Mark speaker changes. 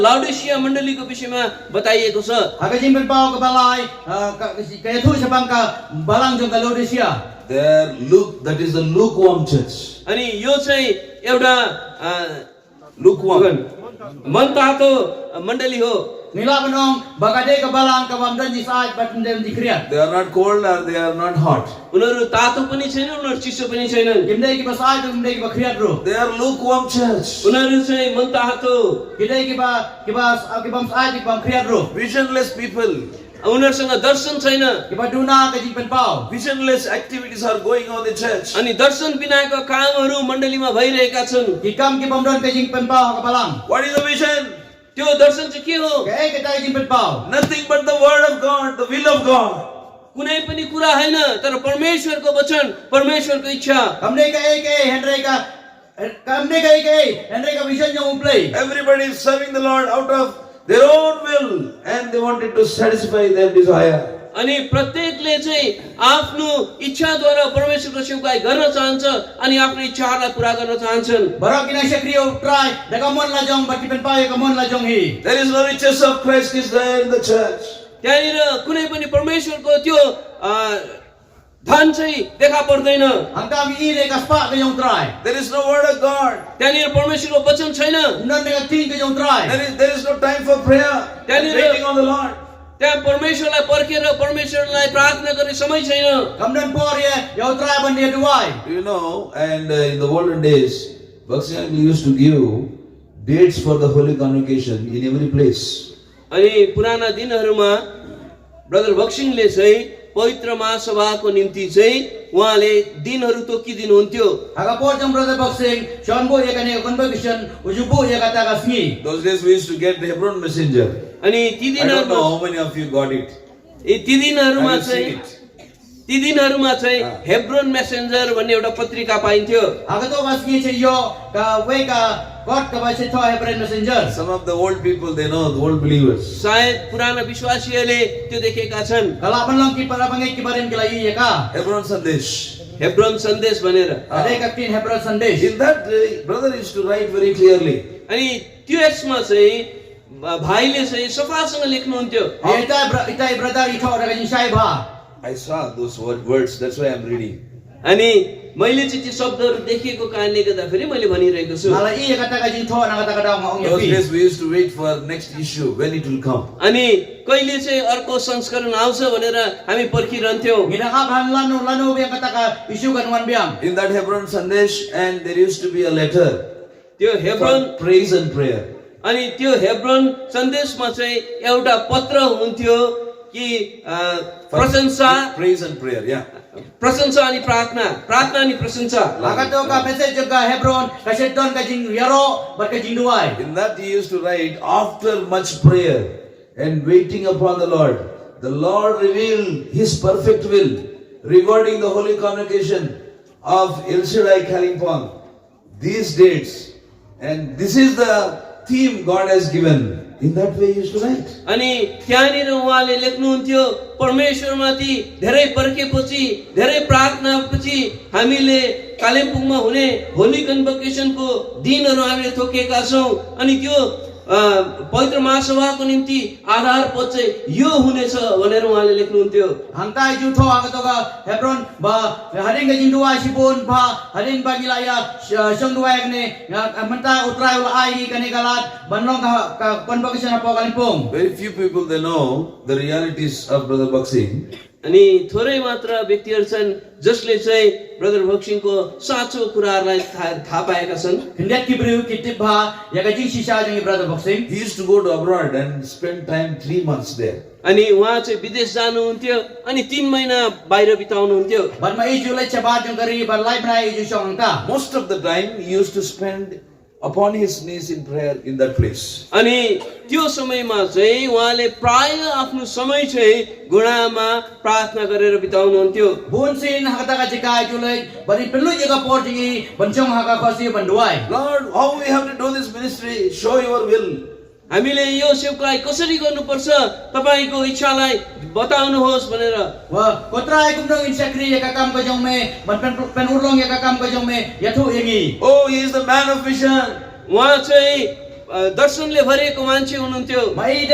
Speaker 1: लाउडेसिया मण्डलीको विषयमा बताइएको छ
Speaker 2: Hagajin Bilbao ke balai, ah, ka- kaya tu sebang ke balang jong ke Laodicea.
Speaker 3: There, Luke, that is the lukewarm church.
Speaker 1: अनि यो चाहिँ एउटा अ,
Speaker 3: Lukewarm.
Speaker 1: मनतातो मण्डली हो
Speaker 2: Nila benong bagade ke balang ke bamdan jisai bamdan dikriat.
Speaker 3: They are not cold or they are not hot.
Speaker 1: उनीहरू तातो पनि छैन उनीहरू चिसो पनि छैनन्
Speaker 2: Gimdai ki basai tu gimdai ki bakriat bro.
Speaker 3: They are lukewarm church.
Speaker 1: उनीहरू चाहिँ मनतातो
Speaker 2: Gimdai ki ba ki ba ki bam sai ki bam kriat bro.
Speaker 3: Visionless people.
Speaker 1: उनीहरूसँग दर्शन छैन
Speaker 2: Ki ba duna ke jin Bilbao.
Speaker 3: Visionless activities are going on in church.
Speaker 1: अनि दर्शन बिनाको कामहरू मण्डलीमा भइरहेका छन्
Speaker 2: Ki kam ki bamdan ke jin Bilbao ke balang.
Speaker 3: What is the vision?
Speaker 1: त्यो दर्शन चाहिँ के हो
Speaker 2: Ke eh ke tai jin Bilbao.
Speaker 3: Nothing but the word of God, the will of God.
Speaker 1: कुनै पनि कुरा होइन तर परमेश्वरको वचन परमेश्वरको इच्छा
Speaker 2: Kamdai ke eh ke eh Henry ke Kamdai ke eh ke eh Henry ke vision jong umplay.
Speaker 3: Everybody is serving the Lord out of their own will and they wanted to satisfy their desire.
Speaker 1: अनि प्रत्येकले चाहिँ आफ्नो इच्छाद्वारा परमेश्वरको सेवकाई गर्न चाहन्छ अनि आफ्नो इच्छाहरूलाई पुरा गर्न चाहन्छन्
Speaker 2: Barak kina syakriyo try. Dagamon la jong bat ki Bilbao ya kamon la jong hi.
Speaker 3: There is no riches of Christ is there in the church.
Speaker 1: त्यहाँनिर कुनै पनि परमेश्वरको त्यो अ, धन चाहिँ देखा पर्दैन
Speaker 2: Angkam i re ka spa ke jong try.
Speaker 3: There is no word of God.
Speaker 1: त्यहाँनिर परमेश्वरको वचन छैन
Speaker 2: Nan dengan ting ke jong try.
Speaker 3: There is, there is no time for prayer.
Speaker 1: Can
Speaker 3: and
Speaker 1: you-
Speaker 3: Waiting on the Lord.
Speaker 1: त्यहाँ परमेश्वरलाई पर्खेर परमेश्वरलाई प्रार्थना गर्ने समय छैन
Speaker 2: Kamdan por ye, yau try ban dia duai.
Speaker 3: You know, and uh, in the olden days, Bhakti Uncle used to give dates for the holy convocation in every place.
Speaker 1: अनि पुराना दिनहरूमा ब्रदर बक्सिङले चाहिँ पवित्र महासभाको निम्ति चाहिँ उहाँले दिनहरू तोकिदिनुहुन्थ्यो
Speaker 2: Aga por jang brother boxing, Sean bo ye kane convocation, uju bo ye kata kasni.
Speaker 3: Those days we used to get the Hebron messenger.
Speaker 1: अनि ती
Speaker 3: I
Speaker 1: दिनहरूमा
Speaker 3: don't know how many of you got it.
Speaker 1: ए, ती दिनहरूमा
Speaker 3: Have you
Speaker 1: चाहिँ
Speaker 3: seen it?
Speaker 1: ती दिनहरूमा चाहिँ
Speaker 3: अँ।
Speaker 1: हेब्रोन मेसेन्जर भन्ने एउटा पत्रिका पाइन्थ्यो
Speaker 2: Aga to kasni che yo ka we ka God ka ba che thoa Hebrew messenger.
Speaker 3: Some of the old people, they know, the old believers.
Speaker 1: सायद पुराना विश्वासीहरूले त्यो देखेका छन्
Speaker 2: Kala ban lang ki para bangai ki barin ki lai ye ka.
Speaker 3: Hebron Sandesh.
Speaker 1: Hebron Sandesh भनेर
Speaker 2: Ada ka tin Hebrew Sunday.
Speaker 3: In that, uh, brother used to write very clearly.
Speaker 1: अनि त्यो यसमा चाहिँ भा- भाइले चाहिँ सफासँग लेख्नुहुन्थ्यो
Speaker 2: Ita ita brother ito ra ka jin sai ba.
Speaker 3: I saw those wo- words, that's why I'm reading.
Speaker 1: अनि मैले चाहिँ त्यो शब्दहरू देखेको कारणले गर्दाखेरि मैले भनिरहेको छु
Speaker 2: Mala i ye kata ka jin thoa na kata ka daw ma ong ye
Speaker 3: Those
Speaker 2: pi.
Speaker 3: days we used to wait for next issue, when it will come.
Speaker 1: अनि कहिले चाहिँ अर्को संस्करण आउँछ भनेर हामी पर्खिरहन्थ्यौँ
Speaker 2: Ngina ka ban lanu lanu be kata ka isu kan wan biang.
Speaker 3: In that Hebron Sandesh, and there used to be a letter
Speaker 1: त्यो Hebron
Speaker 3: for praise and prayer.
Speaker 1: अनि त्यो हेब्रोन सन्देशमा चाहिँ एउटा पत्र हुन्थ्यो कि अ,
Speaker 3: For
Speaker 1: प्रशंसा
Speaker 3: Praise and prayer, yeah.
Speaker 1: प्रशंसा अनि प्रार्थना प्रार्थना अनि प्रशंसा
Speaker 2: Aga to ka message ka Hebron, ka Shedon ka jing yaro, bat ka jing duai.
Speaker 3: In that he used to write, after much prayer and waiting upon the Lord, the Lord revealed his perfect will, rewarding the holy convocation of El Shaddai Kalimpong. These dates, and this is the theme God has given. In that way, he used to write.
Speaker 1: अनि त्यहाँनिर उहाँले लेख्नुहुन्थ्यो परमेश्वरमाथि धेरै पर्खेपछि धेरै प्रार्थनापछि हामीले कालिम्पोङमा हुने होली कन्भकेसनको दिनहरू हामीले थोकेका छौँ अनि त्यो अ, पवित्र महासभाको निम्ति आधार पद चाहिँ यो हुनेछ भनेर उहाँले लेख्नुहुन्थ्यो
Speaker 2: Hangkai ju tho aga to ka Hebron ba haring ka jing duai sipun ba haring ba gilaya shong duai ne menta utrai ul ai ka ne galat banlong ka ka convocation apa kalimpong.
Speaker 3: Very few people they know the realities of Brother Baksing.
Speaker 1: अनि थोरै मात्र व्यक्तिहरू छन् जसले चाहिँ brother भक्सिङको साँचो कुराहरूलाई थाहा थाहा पाएका छन्
Speaker 2: Hendak ki beriu ki tip ba ya ka jing shisha jing brother boxing.
Speaker 3: He used to go to abroad and spend time three months there.
Speaker 1: अनि उहाँ चाहिँ विदेश जानुहुन्थ्यो अनि तिन महिना बाहिर बिताउनुहुन्थ्यो
Speaker 2: Ban ma i ju le chaba jing kari ban lai brai i ju shong ka.
Speaker 3: Most of the time, he used to spend upon his knees in prayer in that place.
Speaker 1: अनि त्यो समयमा चाहिँ उहाँले प्राय आफ्नो समय चाहिँ घुँडामा प्रार्थना गरेर बिताउनुहुन्थ्यो
Speaker 2: Bun sin hakata ka jikai ju le bari perlu je ka por jing i ban chong haka khosi ban duai.
Speaker 3: Lord, how we have to do this ministry? Show your will.
Speaker 1: हामीले यो सेवकालाई कसरी गर्नुपर्छ तपाईँको इच्छालाई बताउनुहोस् भनेर
Speaker 2: Wah, kotrai kum dong insakri ya kakam kajong me, ban pen pen urlong ya kakam kajong me, ya thu yengi.
Speaker 3: Oh, he is the man of vision.
Speaker 1: उहाँ चाहिँ अ, दर्शनले भरिएको मान्छे हुनुहुन्थ्यो
Speaker 2: May